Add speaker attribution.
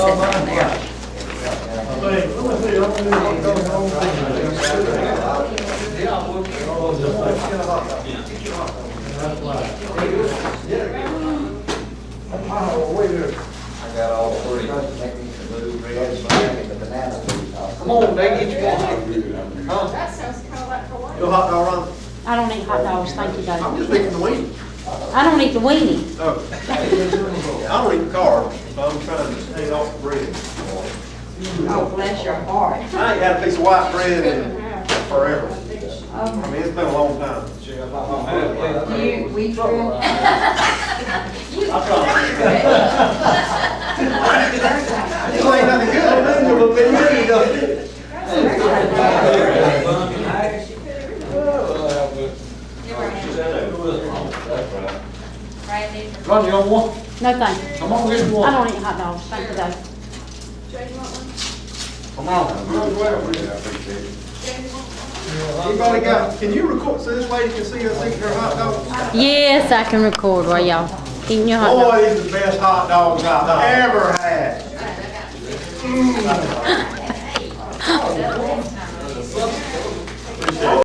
Speaker 1: on there.
Speaker 2: I got all three. Come on, they get you one. Huh?
Speaker 3: That sounds kind of like Hawaii.
Speaker 2: Your hot dog run?
Speaker 1: I don't eat hot dogs, thank you,
Speaker 2: I'm
Speaker 1: David.
Speaker 2: just making the wing.
Speaker 1: I don't eat the weenie.
Speaker 2: Oh. I don't eat carbs, so I'm trying to stay off bread.
Speaker 4: Oh, bless your heart.
Speaker 2: I ain't had a piece of white bread in forever. I
Speaker 4: Oh,
Speaker 2: mean, it's been a long time.
Speaker 4: You, we grew.
Speaker 2: It ain't nothing good, nothing but a bit meaty, though.
Speaker 3: You were in Randy,
Speaker 2: Run, you want one?
Speaker 1: No, thank you.
Speaker 2: Come on, get you
Speaker 1: I
Speaker 2: one.
Speaker 1: don't eat hot dogs, thank you, David.
Speaker 3: Jay, you want one?
Speaker 2: Come on.
Speaker 3: Jay, you want one?
Speaker 2: Anybody got, can you record, so this lady can see us eating her hot dog?
Speaker 1: Yes, I can record while y'all eating your
Speaker 2: Oh,
Speaker 1: hot dogs.
Speaker 2: Boy, these the best hot dogs I've ever had.
Speaker 3: All right, I got you.
Speaker 2: Mm.